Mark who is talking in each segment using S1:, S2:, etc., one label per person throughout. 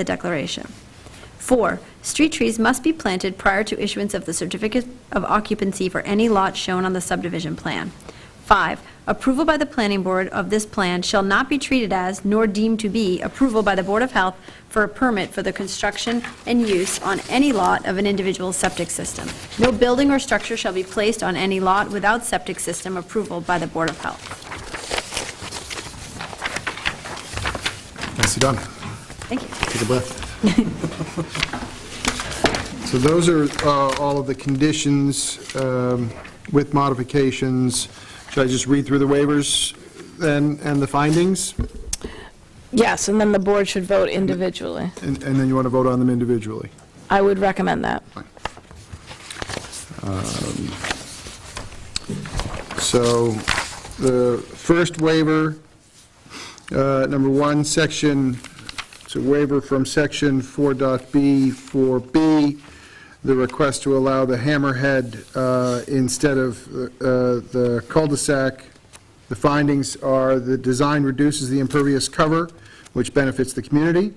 S1: the declaration. Four, street trees must be planted prior to issuance of the certificate of occupancy for any lot shown on the subdivision plan. Five, approval by the planning board of this plan shall not be treated as, nor deemed to be, approval by the Board of Health for a permit for the construction and use on any lot of an individual septic system. No building or structure shall be placed on any lot without septic system approval by the Board of Health.
S2: Nicely done.
S1: Thank you.
S2: Take a breath. So those are uh, all of the conditions um, with modifications. Should I just read through the waivers then, and the findings?
S3: Yes, and then the board should vote individually.
S2: And and then you want to vote on them individually?
S3: I would recommend that.
S2: So the first waiver, uh, number one, section, it's a waiver from section 4.B, 4B, the request to allow the hammerhead uh, instead of uh, the cul-de-sac. The findings are the design reduces the impervious cover, which benefits the community.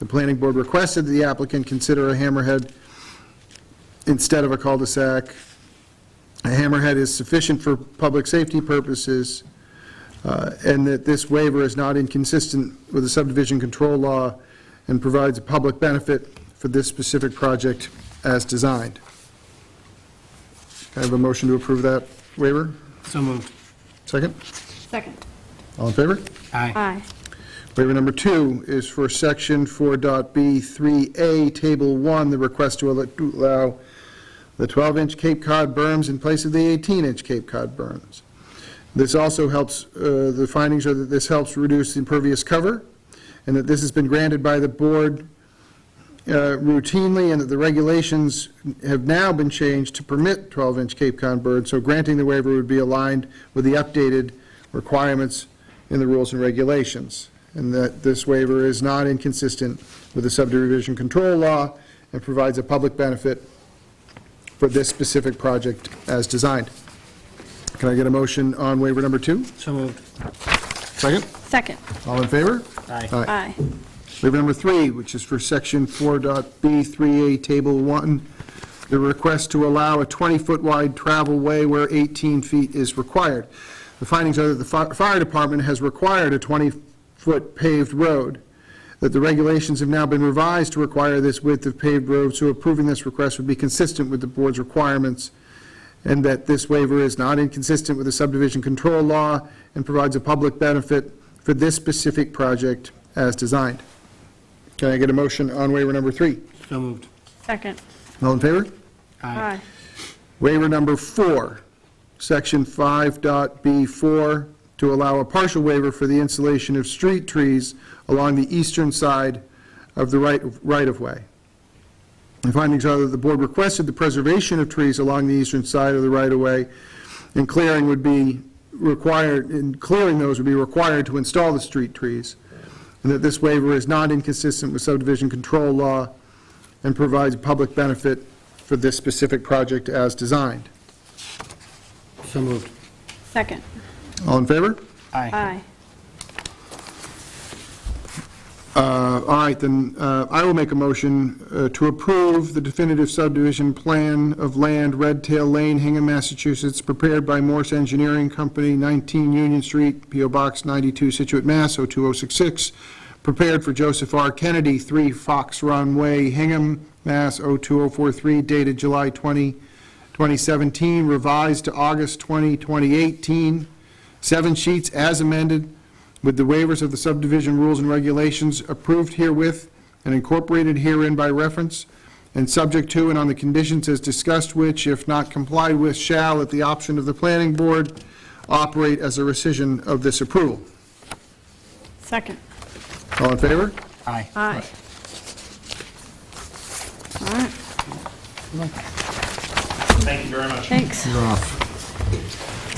S2: The planning board requested the applicant consider a hammerhead instead of a cul-de-sac. A hammerhead is sufficient for public safety purposes, uh, and that this waiver is not inconsistent with the subdivision control law and provides a public benefit for this specific project as designed. Can I have a motion to approve that waiver?
S4: So moved.
S2: Second?
S1: Second.
S2: All in favor?
S4: Aye.
S1: Aye.
S2: Waiver number two is for section 4.B 3A, table 1, the request to al- to allow the 12-inch Cape Cod berms in place of the 18-inch Cape Cod berms. This also helps, uh, the findings are that this helps reduce the impervious cover, and that this has been granted by the board uh, routinely, and that the regulations have now been changed to permit 12-inch Cape Cod berms, so granting the waiver would be aligned with the updated requirements in the rules and regulations, and that this waiver is not inconsistent with the subdivision control law and provides a public benefit for this specific project as designed. Can I get a motion on waiver number two?
S4: So moved.
S2: Second.
S1: Second.
S2: All in favor?
S4: Aye.
S1: Aye.
S2: Waiver number three, which is for section 4.B3A, table one, the request to allow a 20-foot wide travel way where 18 feet is required. The findings are that the fi- fire department has required a 20-foot paved road, that the regulations have now been revised to require this width of paved road, so approving this request would be consistent with the board's requirements, and that this waiver is not inconsistent with the subdivision control law and provides a public benefit for this specific project as designed. Can I get a motion on waiver number three?
S4: So moved.
S1: Second.
S2: All in favor?
S4: Aye.
S2: Waiver number four, section 5.B4, to allow a partial waiver for the installation of street trees along the eastern side of the right- right-of-way. The findings are that the board requested the preservation of trees along the eastern side of the right-of-way, and clearing would be required, and clearing those would be required to install the street trees, and that this waiver is not inconsistent with subdivision control law and provides public benefit for this specific project as designed.
S4: So moved.
S1: Second.
S2: All in favor?
S4: Aye.
S2: Uh, All right, then, uh, I will make a motion uh, to approve the definitive subdivision plan of land, Red Tail Lane, Hingham, Massachusetts, prepared by Morse Engineering Company, 19 Union Street, PO Box 92, Situate, Mass. 02066, prepared for Joseph R. Kennedy, 3 Fox Run Way, Hingham, Mass. 02043, dated July 20, 2017, revised to August 20, 2018, seven sheets as amended, with the waivers of the subdivision rules and regulations approved herewith and incorporated herein by reference, and subject to and on the conditions as discussed which, if not complied with, shall, at the option of the planning board, operate as a rescission of this approval.
S1: Second.
S2: All in favor?
S4: Aye.
S1: Aye. All right,
S5: Thank you very much.
S1: thanks.
S2: You're off.